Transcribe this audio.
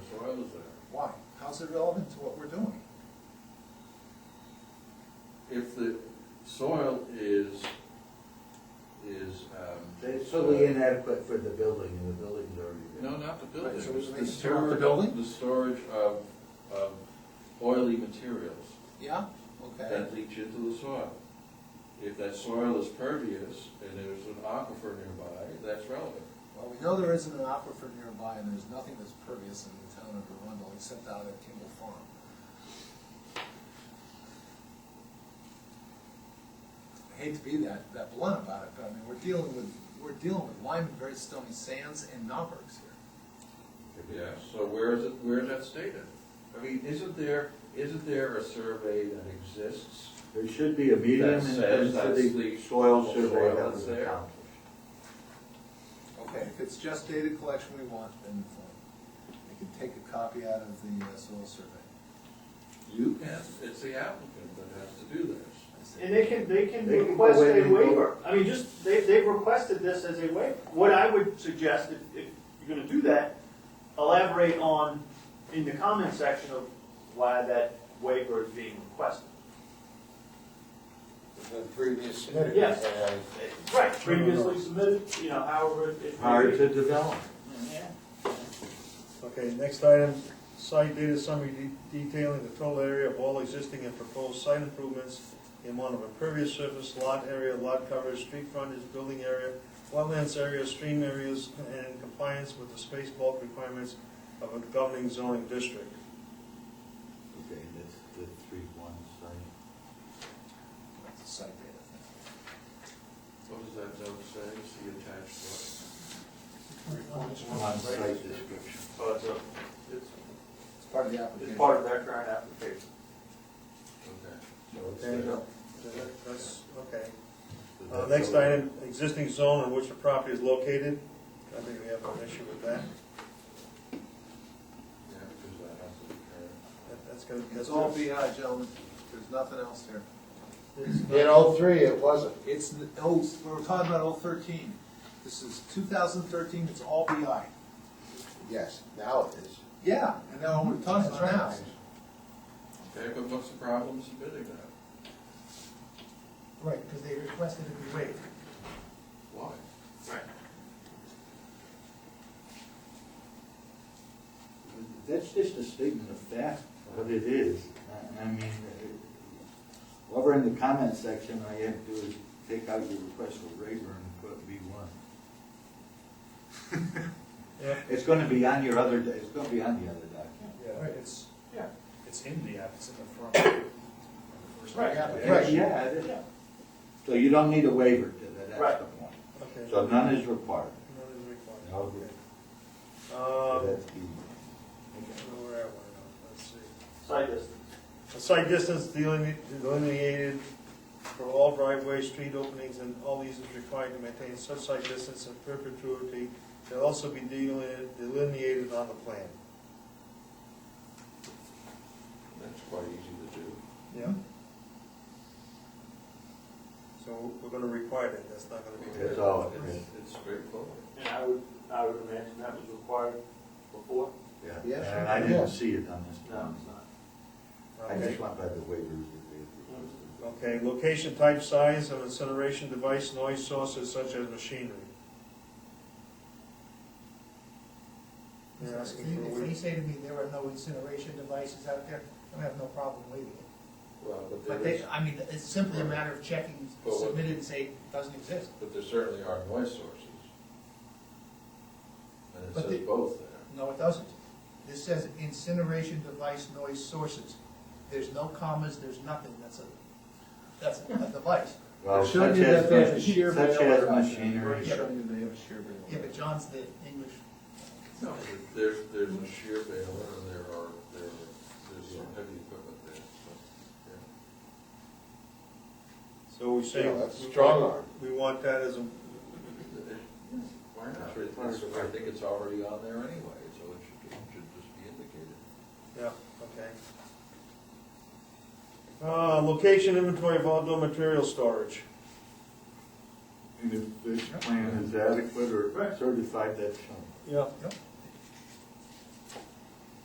is that? Why? How's it relevant to what we're doing? If the soil is, is, um. It's totally inadequate for the building, and the building's already there. No, not the building. Right, so we can The make it throughout the storage- building? The storage of, of oily materials Yeah, okay. that leach into the soil. If that soil is pervious and there's an aquifer nearby, that's relevant. Well, we know there isn't an aquifer nearby, and there's nothing that's pervious in the town of Arundel, except out at Kimball Farm. I hate to be that, that blunt about it, but I mean, we're dealing with, we're dealing with lime and very stony sands and knobbergs here. Yeah, so where is it, where is that stated? I mean, isn't there, isn't there a survey that exists? There should be a medium That and says that's density the soil soil survey that that's was there. accomplished. Okay, if it's just data collection we want, then fine. We can take a copy out of the uh, soil survey. You can, it's the applicant that has to do this. I see. And they can, they can They can go request in a and go- waiver. I mean, just, they, they've requested this as a waiver. What I would suggest, if, if you're gonna do that, elaborate on, in the comment section of why that waiver is being requested. The previous. Yes. Right, previously submitted, you know, however it. Prior to development. Okay, next item, site data summary de- detailing the total area of all existing and proposed site improvements in one of impervious surface, lot area, lot coverage, street frontage, building area, wetlands area, stream areas, and compliance with the space bulk requirements of a governing zoning district. Okay, that's the three one site. That's a site data What does that note say, see attached what? On site description. So it's a, It's, thing. It's part of the application. it's part of their current application. okay. So it's there. That's, okay. So Uh, that's Next all. item, existing zone in which the property is located. I think we have an issue with that. Yeah, because that has to be current. That- That's gonna, It's that's all all. BI, gentlemen, there's nothing else here. In oh three, it wasn't. It's, n- oh, we're talking about oh thirteen, this is two thousand thirteen, it's all BI. Yes, now it is. Yeah, and now we're talking about now. Okay, but what's the problem submitting that? Right, because they requested it be waived. Why? That's just a statement of fact, what it is. I I mean, it- over in the comment section, all you have to do is take out your request for waiver and put B one. Yeah. It's gonna be on your other, it's gonna be on the other document. Right, it's, Yeah. it's in the app, it's in the front. Right. Right, yeah, it is. So you don't need a waiver to that, that's Right. the point. Okay. So none is required. None is required. No, Um, that's B. where are we now? Let's see. Site distance. A site distance deline- delineated for all driveways, street openings, and all these is required to maintain such site distance in perpetuity. Shall also be delineated- delineated on the plan. That's quite easy to do. Yeah. So we're gonna require that, that's not gonna be. That's all it It's- is. It's straightforward. And I would, I would imagine that was required before? Yeah, Yes, and I yeah. didn't see it on this. No, plan. it's not. I Okay. just went by the waivers that they had proposed. Okay, location, type, size of incineration device, noise sources such as machinery. They're If asking for a they- if they waiver. say to me there are no incineration devices out there, I have no problem waiving it. Well, But they, I mean, it's simply a matter of checking, But what- submitted and say, doesn't exist. but there certainly are noise sources. And it But says they- both there. No, it doesn't. This says incineration device noise sources. There's no commas, there's nothing, that's a, that's a device. Well, They're showing such you as, that they have a mach- shear such bale as or- machinery. They're showing you they have a shear bale. Yeah, but John's the English. No, there's, there's a shear baler and there are, there are, there's some heavy equipment there, so, yeah. So we say. Yeah, that's we strong want- arm. We want that as a, Why not? It's- I think it's already on there anyway, so it should, it should just be indicated. yeah, okay. Uh, location inventory of outdoor material storage. And if this plan is adequate or certified, that's shown. Yeah. Yep.